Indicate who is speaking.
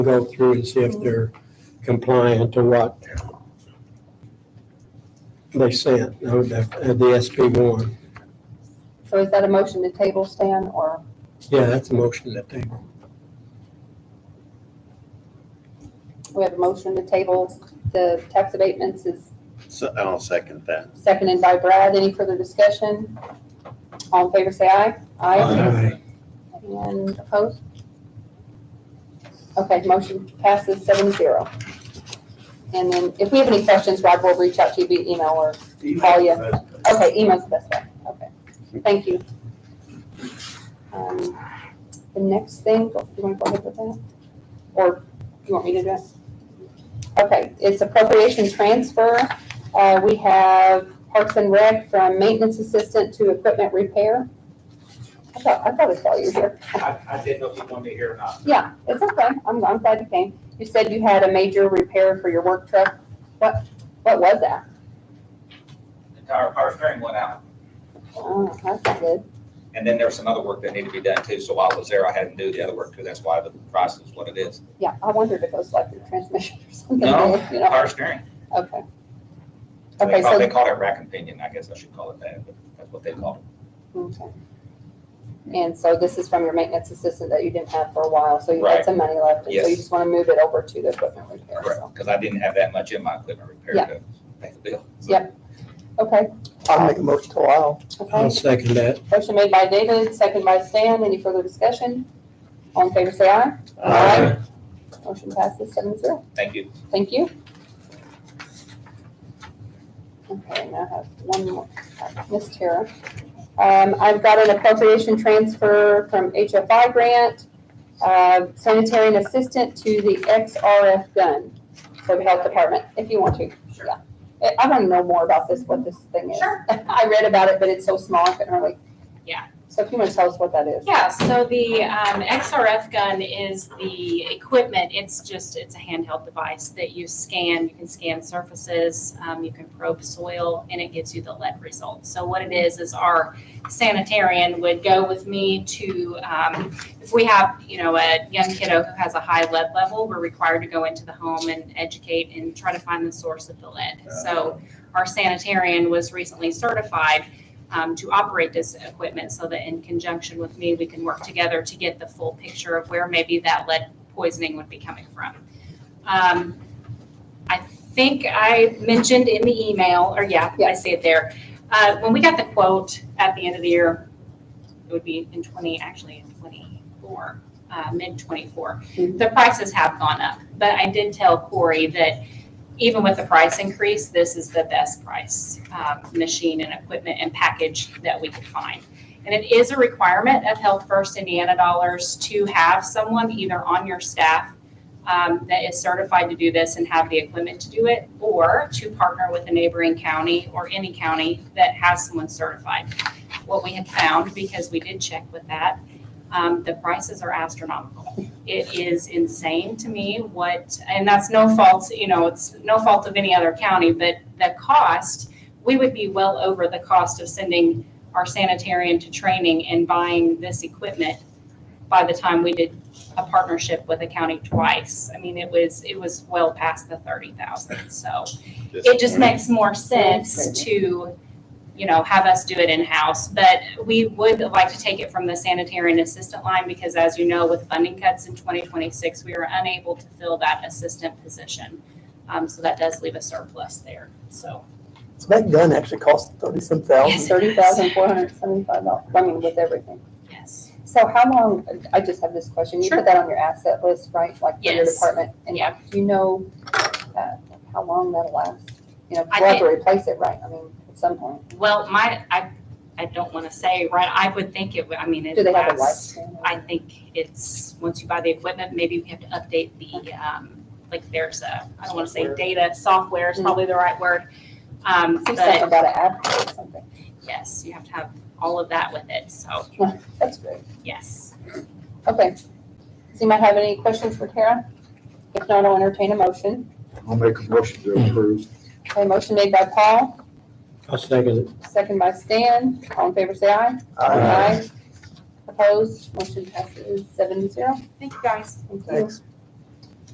Speaker 1: go through and see if they're compliant to what they sent, uh, the the SB one.
Speaker 2: So is that a motion to table, Stan, or?
Speaker 1: Yeah, that's a motion to table.
Speaker 2: We have a motion to table the tax abatements is
Speaker 3: So I'll second that.
Speaker 2: seconded by Brad. Any further discussion? All in favor, say aye.
Speaker 1: Aye.
Speaker 2: And opposed? Okay, motion passes seven zero. And then if we have any questions, Rob will reach out to you via email or, Oh, yeah. okay, email's the best way. Okay, thank you. Um, The next thing, do you want to go ahead with that? Or do you want me to do it? Okay, it's appropriation transfer. Uh, We have Parks and Rec from maintenance assistant to equipment repair. I thought, I thought I saw you here.
Speaker 4: I, I didn't know if you wanted me here or not.
Speaker 2: Yeah, it's okay. I'm, I'm glad you came. You said you had a major repair for your work truck. What, what was that?
Speaker 4: The Entire power steering went out.
Speaker 2: Oh, that's not good.
Speaker 4: And then there was some other work that needed to be done too, so while I was there, I had to do the other work too, that's why the price is what it is.
Speaker 2: Yeah, I wondered if it was like your transmission or something.
Speaker 4: No,
Speaker 2: You know,
Speaker 4: power steering.
Speaker 2: okay.
Speaker 4: They
Speaker 2: Okay,
Speaker 4: call- They
Speaker 2: so,
Speaker 4: call it rack and pinion, I guess I should call it that, but that's what they call it.
Speaker 2: okay. And so this is from your maintenance assistant that you didn't have for a while, so you had
Speaker 4: Right.
Speaker 2: some money left. and So you
Speaker 4: Yes.
Speaker 2: just want to move it over to the equipment repair,
Speaker 4: Correct,
Speaker 2: so.
Speaker 4: because I didn't have that much in my equipment repair
Speaker 2: Yeah.
Speaker 4: to pay the bill.
Speaker 2: Yep. Okay,
Speaker 5: I'll make a motion to allow.
Speaker 2: okay.
Speaker 1: I'll second that.
Speaker 2: Motion made by David, second by Stan. Any further discussion? All in favor, say aye.
Speaker 1: Aye.
Speaker 2: Motion passes seven zero.
Speaker 4: Thank you.
Speaker 2: Thank you. Okay, now I have one more, Ms. Tara. Um, I've got an appropriation transfer from HFI grant, uh, sanitarian assistant to the XRF gun for the health department, if you want to.
Speaker 4: Sure.
Speaker 2: Yeah. I- I want to know more about this, what this thing is.
Speaker 6: Sure.
Speaker 2: I read about it, but it's so small, I couldn't really.
Speaker 6: Yeah.
Speaker 2: So if you want to tell us what that is.
Speaker 6: Yeah, so the um, XRF gun is the equipment, it's just, it's a handheld device that you scan, you can scan surfaces, um, you can probe soil, and it gives you the lead result. So what it is, is our sanitarian would go with me to, um, if we have, you know, a young kiddo who has a high lead level, we're required to go into the home and educate and try to find the source of the lead. So our sanitarian was recently certified um, to operate this equipment so that in conjunction with me, we can work together to get the full picture of where maybe that lead poisoning would be coming from. Um, I think I mentioned in the email, or yeah, I see it there. Uh, when we got the quote at the end of the year, it would be in twenty, actually in twenty-four, uh, mid twenty-four.
Speaker 2: Mhm.
Speaker 6: The prices have gone up, but I did tell Corey that even with the price increase, this is the best price, um, machine and equipment and package that we could find. And it is a requirement of Health First Indiana dollars to have someone either on your staff um, that is certified to do this and have the equipment to do it, or to partner with a neighboring county or any county that has someone certified. What we had found, because we did check with that, um, the prices are astronomical. It is insane to me what, and that's no fault, you know, it's no fault of any other county, but the cost, we would be well over the cost of sending our sanitarian to training and buying this equipment by the time we did a partnership with a county twice. I mean, it was, it was well past the thirty thousand, so it just makes more sense to, you know, have us do it in-house. But we would like to take it from the sanitarian assistant line because as you know, with funding cuts in twenty twenty-six, we were unable to fill that assistant position. Um, so that does leave a surplus there, so.
Speaker 5: So that gun actually costs thirty-some thousand.
Speaker 6: Yes.
Speaker 2: Thirty thousand four hundred seventy-five dollars, I mean, with everything.
Speaker 6: Yes.
Speaker 2: So how long, I just have this question, you put
Speaker 6: Sure.
Speaker 2: that on your asset list, right, like for your
Speaker 6: Yes.
Speaker 2: department? And
Speaker 6: Yeah.
Speaker 2: do you know uh, how long that'll last? You know, 'cause
Speaker 6: I
Speaker 2: we'll have to replace it, right, I mean, at some point.
Speaker 6: Well, my, I, I don't want to say, right, I would think it would, I mean, it
Speaker 2: Do they have a
Speaker 6: lasts-
Speaker 2: lifespan?
Speaker 6: I think it's, once you buy the equipment, maybe we have to update the, um, like there's a, I don't wanna say data, software is probably the right word. Um,
Speaker 2: Say something
Speaker 6: but
Speaker 2: about an app or something,
Speaker 6: yes, you have to have all of that with it, so,
Speaker 2: that's great,
Speaker 6: yes.
Speaker 2: okay. Does anybody have any questions for Tara? If not, I'll entertain a motion.
Speaker 7: I'll make a motion to approve.
Speaker 2: Okay, motion made by Paul,
Speaker 1: I'll second it.
Speaker 2: second by Stan, all in favor, say aye.
Speaker 5: Aye.
Speaker 2: Opposed, motion passes seven zero.
Speaker 6: Thank you guys.
Speaker 2: Thank you.
Speaker 5: Thanks.